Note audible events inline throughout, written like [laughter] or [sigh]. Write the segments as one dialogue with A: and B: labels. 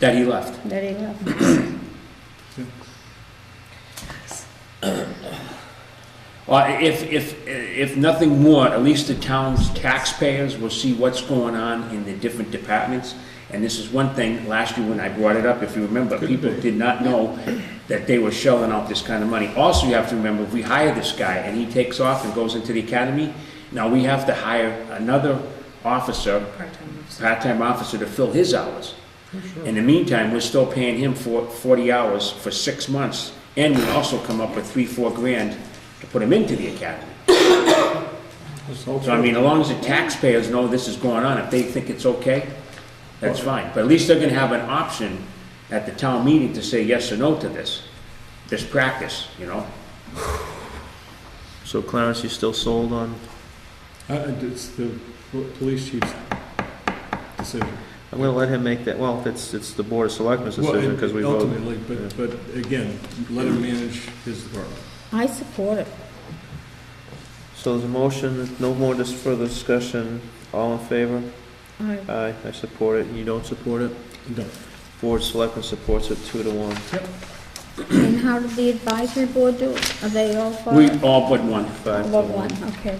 A: that he left.
B: that he left.
A: Well, Uh, if, if, if nothing more, at least the town's taxpayers will see what's going on in the different departments. And this is one thing, last year when I brought it up, if you remember, people did not know that they were shelling out this kind of money. Also, you have to remember, if we hire this guy and he takes off and goes into the academy, now we have to hire another officer, part-time officer to fill his hours. In the meantime, we're still paying him for forty hours for six months, and we also come up with three, four grand to put him into the academy. So I mean, as long as the taxpayers know this is going on, if they think it's okay, that's fine. But at least they're gonna have an option at the town meeting to say yes or no to this, this practice, you know?
C: So Clarence, you still sold on,
D: Uh, It's the po- police chief's decision.
C: I'm gonna let him make that, well, it's, it's the Board of Selectmen's
D: Well,
C: decision, because we voted.
D: Ultimately, but, but again, let him manage his department.
B: I support it.
C: So there's a motion, no more dis- further discussion, all in favor?
B: I-
C: Aye, I support it, you don't support it?
D: No,
C: Board of Selectmen supports it two to one.
B: And how did the advisory board do it? Are they all for
A: We
B: it?
A: all but one.
C: Five to
B: All of one, okay.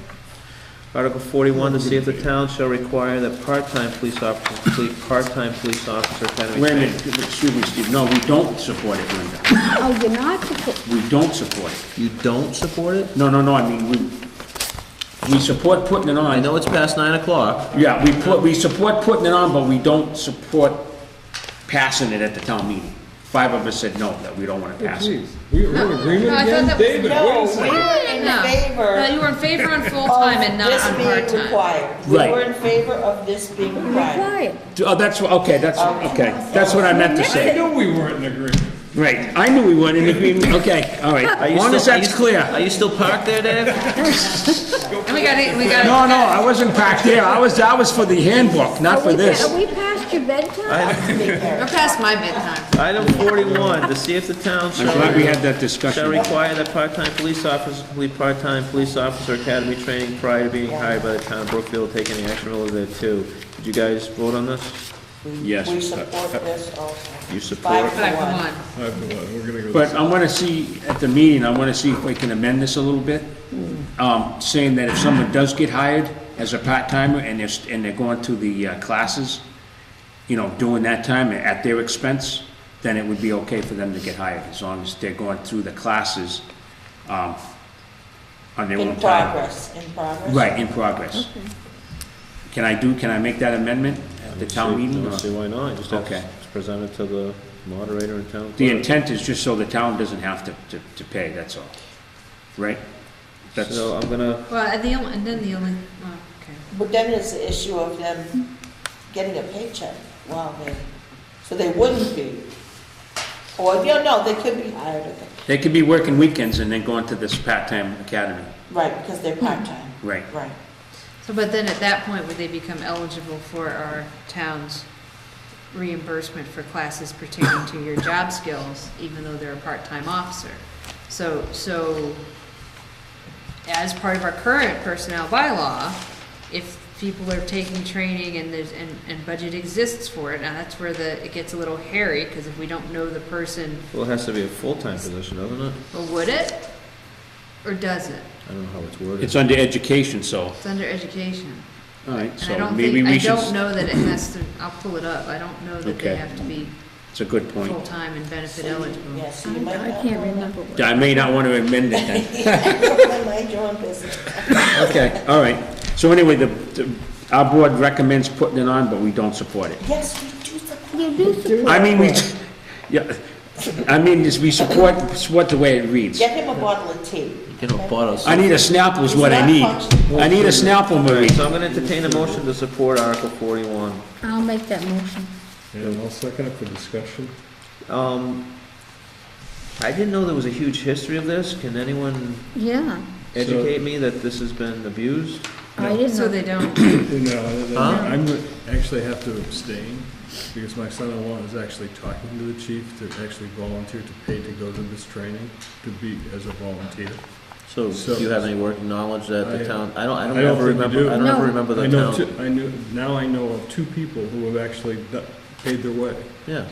C: Article forty-one, to see if the town shall require that part-time police officer, complete part-time police officer academy.
A: Wait a
C: training.
A: minute, excuse me, Steve, no, we don't support it, Linda.
B: Oh, you're not suppo-
A: We don't support it.
C: You don't support it?
A: No, no, no, I mean, we, we support putting it on.
C: I know it's past nine o'clock.
A: Yeah, we put, we support putting it on, but we don't support passing it at the town meeting. Five of us said no, that we don't wanna pass it.
D: We- We're in
E: No,
D: agreement
E: I
D: again?
E: thought that was-
D: David, wait a second.
F: in favor
E: No, you were in favor on full-time and not on
F: This being
E: part-time.
F: required. We
A: Right.
F: were in favor of this being required.
B: Quiet.
A: Oh, that's, what- okay, that's, okay, that's what I meant to
D: I
A: say.
D: knew we weren't in agreement.
A: Right, I knew we weren't in agreement, okay, all right,
C: Are you
A: as long as
C: still- are
A: that's
C: you-
A: clear.
C: Are you still parked there, Dave?
E: And we got it, we got it.
A: No, no, I wasn't back there, I was, I was for the handbook, not for
B: Are we-
A: this.
B: Are we past your bedtime?
E: We're past my bedtime.
C: Item forty-one, to see if the town
A: I'm
C: shall.
A: glad we had that
C: Shall
A: discussion.
C: require that part-time police officers complete part-time police officer academy training prior to being hired by the town of Brookfield, take any action relative thereto. Did you guys vote on this?
A: Yes,
F: We
A: it's-
F: support this also.
C: You support?
F: Five
E: Five for one.
D: All right, come on, we're gonna go.
A: But I wanna see, at the meeting, I wanna see if we can amend this a little bit,
F: Hmm.
A: um, saying that if someone does get hired as a part-timer and they're, st- and they're going to the uh, classes, you know, during that time at their expense, then it would be okay for them to get hired, as long as they're going through the classes, um, on their
F: In
A: own time.
F: progress, in progress.
A: Right, in progress. Can I do, can I make that amendment at the town meeting?
C: I don't see
A: or-
C: why not, just have
A: Okay.
C: to present it to the moderator and town
A: The
C: clerk.
A: intent is just so the town doesn't have to, to, to pay, that's all, right? That's,
C: So I'm gonna,
E: Well, and the only, and then the only, oh, okay.
F: But then there's the issue of them getting a paycheck while they, so they wouldn't be. Or, you know, they could be hired, at the-
A: they could be working weekends and then going to this part-time academy,
F: right, because they're part-time.
A: right?
F: Right.
E: So, but then at that point, would they become eligible for our town's reimbursement for classes pertaining to your job skills, even though they're a part-time officer? So, so as part of our current personnel bylaw, if people are taking training and there's, and, and budget exists for it, now that's where the, it gets a little hairy, because if we don't know the person,
C: well, it has to be a full-time position, doesn't it?
E: well, would it? Or does it?
C: I don't know how it's worded.
A: It's under education, so,
E: It's under education.
A: all right,
E: And I
A: so
E: don't
A: maybe
E: think, I
A: we should,
E: don't know that it has to, I'll pull it up, I don't know that
A: Okay.
E: they have to be
A: it's a good point.
E: full-time and benefit eligible.
F: Yes, you might
B: I
F: not.
B: can't remember what.
A: I may not want to amend it
E: [laughs]
A: then.
F: [laughs] Mind your own business.
A: Okay, all right. So anyway, the, the- our board recommends putting it on, but we don't support it.
F: Yes, we do support.
B: You do support.
A: I mean, we, [laughs] yeah, I mean, is we support, support the way it reads.
F: Get him a bottle of tea.
C: You know, bought us.
A: I need a Snapple is what I need. I need a Snapple, Marie.
C: So I'm gonna entertain a motion to support Article forty-one.
B: I'll make that motion.
D: And I'll second it
A: [coughs]
D: for discussion.
C: Um, I didn't know there was a huge history of this, can anyone
B: Yeah,
C: educate me that this has been abused?
B: I didn't
E: So
B: know.
E: they don't,
D: You know, and then
C: Huh?
D: I'm gonna actually have to abstain because my son-in-law is actually talking to the chief to actually volunteer to pay to go to this training to be as a volunteer.
C: So,
D: So-
C: do you have any working knowledge that
D: I-
C: the town, I don't, I don't
D: I don't think
C: ever
D: we
C: remember,
D: do.
C: I don't ever
B: No.
C: remember
D: I
C: the
D: know, two-
C: town.
D: I knew, now I know of two people who have actually do- paid their way.
C: Yeah.